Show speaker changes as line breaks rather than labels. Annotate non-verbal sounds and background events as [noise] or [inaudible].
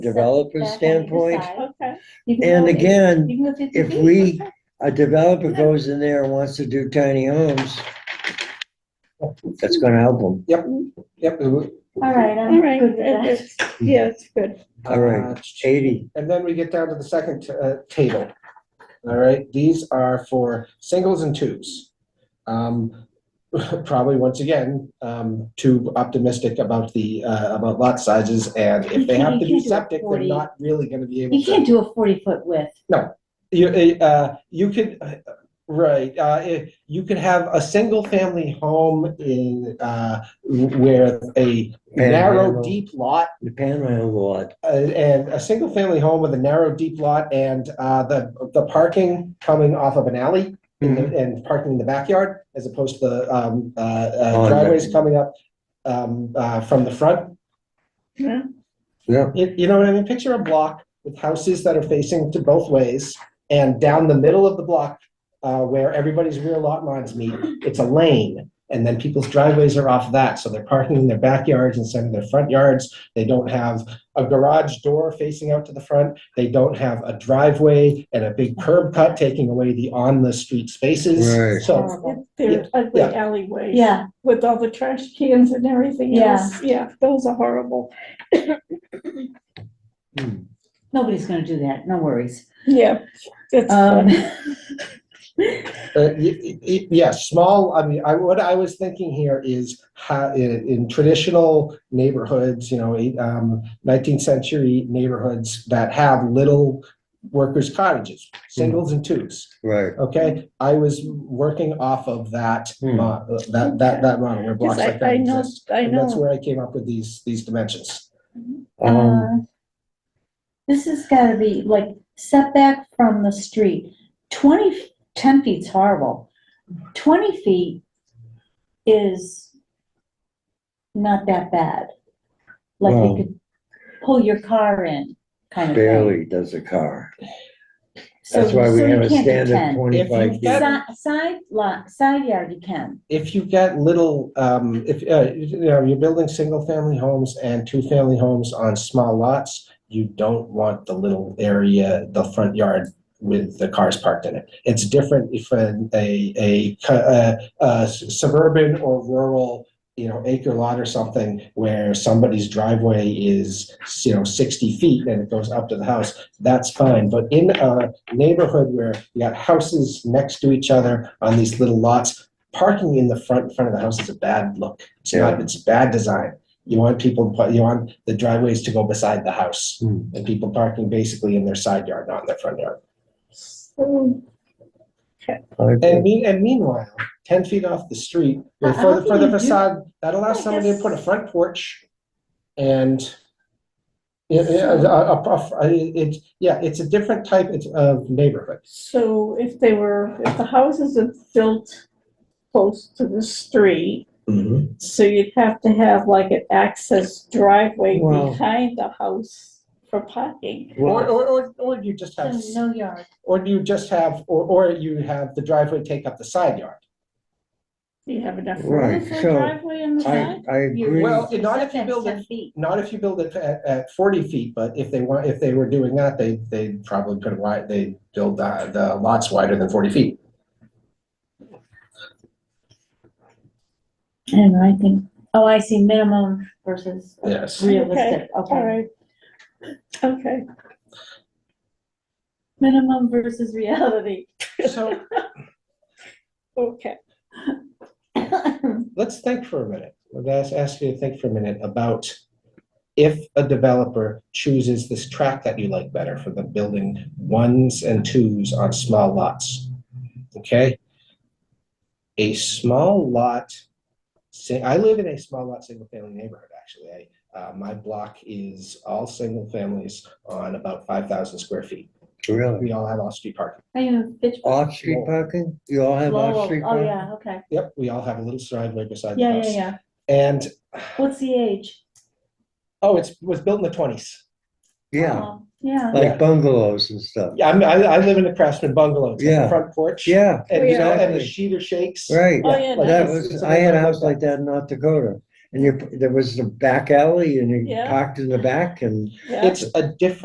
developer
back on either
standpoint.
side.
Okay.
You can
And
go-
again,
you can go 50
if
feet.
we, a developer goes in there and wants to do tiny homes, that's gonna help them.
Yep, yep. it would-
All right,
All
I'm
right,
Um, good with that.
it's, yeah, it's good.
All right.
Uh,
Eighty,
And then we get down to the second uh, table. All right, these are for singles and twos. Um, [laughs] Probably, once again, um, too optimistic about the, uh, about lot sizes, and if they have
You
to
can't
be
do a
septic, they're
40.
not really gonna be able to.
You can't do a forty foot width.
You, uh, you could, uh, right, uh, if, you could have a single family home in, uh, where a narrow,
Panhandle.
deep lot,
the panhandle lot,
uh, and a single family home with a narrow, deep lot and, uh, the, the parking coming off of an alley in the- and parking in the backyard as opposed to the, um, uh,
Oh,
uh,
yeah.
driveways coming up, um, uh, from the front.
Yeah.
yeah,
You, you know what I mean? Picture a block with houses that are facing to both ways and down the middle of the block, uh, where everybody's rear lot lines meet, it's a lane. And then people's driveways are off that, so they're parking in their backyards instead of their front yards. They don't have a garage door facing out to the front. They don't have a driveway and a big curb cut taking away the on-the-street
Right.
spaces. So,
Horrible.
It's their ugly alleyways.
Yeah,
With all the trash cans and everything
Yeah.
else. Yeah, those are horrible.
Hmm.
nobody's gonna do that, no worries.
Yeah. It's
Um,
fun.
Uh, y- y- y- Yeah, small, I mean, I, what I was thinking here is how, i- in, traditional neighborhoods, you know, eight- um, nineteenth century neighborhoods that have little workers cottages,
Hmm.
singles and twos,
right.
okay? I was working off of that,
Hmm.
mo- that, that, that model where blocks
Cause I,
like that
I know,
exist.
I
And that's
know.
where I came up with these, these dimensions.
[laughs] Um,
uh, This has gotta be like setback from the street. Twenty, f- ten feet's horrible. Twenty feet is not that bad. Like
Well-
you could pull your car in, kind of thing.
barely does a car.
So-
That's why we
so you
have a
can't do
standard
10.
twenty-five
If you-
feet.
Si- Side lot, side yard you can.
if you get little, um, if, uh, you know, you're building single-family homes and two-family homes on small lots, you don't want the little area, the front yard with the cars parked in it. It's different if a, a, a, cu- uh, uh, suburban or rural, you know, acre lot or something where somebody's driveway is, you know, sixty feet and it goes up to the house, that's fine. But in a neighborhood where you got houses next to each other on these little lots, parking in the front, in front of the house is a bad look. It's not, it's bad design. You want people, but you want the driveways to go beside the house
Hmm.
and people parking basically in their side yard, not in their front yard.
So,
And
Okay.
mean, and meanwhile, ten feet off the street,
Uh, How-
or
how
further,
can
further
you do-
facade, that allows
I
somebody to
guess-
put a front porch and yeah, yeah, a- a- a- a- it's, yeah, it's a different type of neighborhood.
so if they were, if the houses are built close to the street,
Mm-hmm.
so you'd have to have like an access driveway
Well-
behind the house for parking.
Or,
Well,
or, or, or you just have,
So no yard.
or do you just have, or, or you have the driveway take up the side yard.
Do you have enough
Right,
room for a
so
driveway on the
I,
side?
I agree.
Well, not if you build it- not if you build it at, at forty feet, but if they want, if they were doing that, they, they probably could wide, they build the, the lots wider than forty feet.
And I think, oh, I see minimum versus
Yes.
realistic,
All
okay.
right. Okay,
Minimum versus reality. [coughs]
So
okay.
let's think for a minute. Let's ask you to think for a minute about if a developer chooses this track that you like better for the building ones and twos on small lots. Okay? A small lot, say, I live in a small lot, single family neighborhood, actually. I, uh, my block is all single families on about five thousand square feet.
Really?
We all have off-street parking.
Are you in pitch?
Off-street parking? You all have
Lowell.
off-street
Oh,
parking?
yeah, okay.
Yep, we all have a little driveway beside the
Yeah, yeah,
house.
yeah.
And,
What's the age?
oh, it's, was built in the twenties.
Yeah,
Oh, Yeah.
like bungalows and stuff.
Yeah, I'm, I, I live in a craftsman bungalow, it's got
Yeah.
a front porch.
Yeah,
And, you know, and the
Exactly.
sheet or shakes.
right.
Oh, yeah,
like
That
nice.
it's-
was,
it's
I had a house
that.
like that in North Dakota. and you, there was a back alley and you
Yeah.
parked in the back and
yeah.
It's a different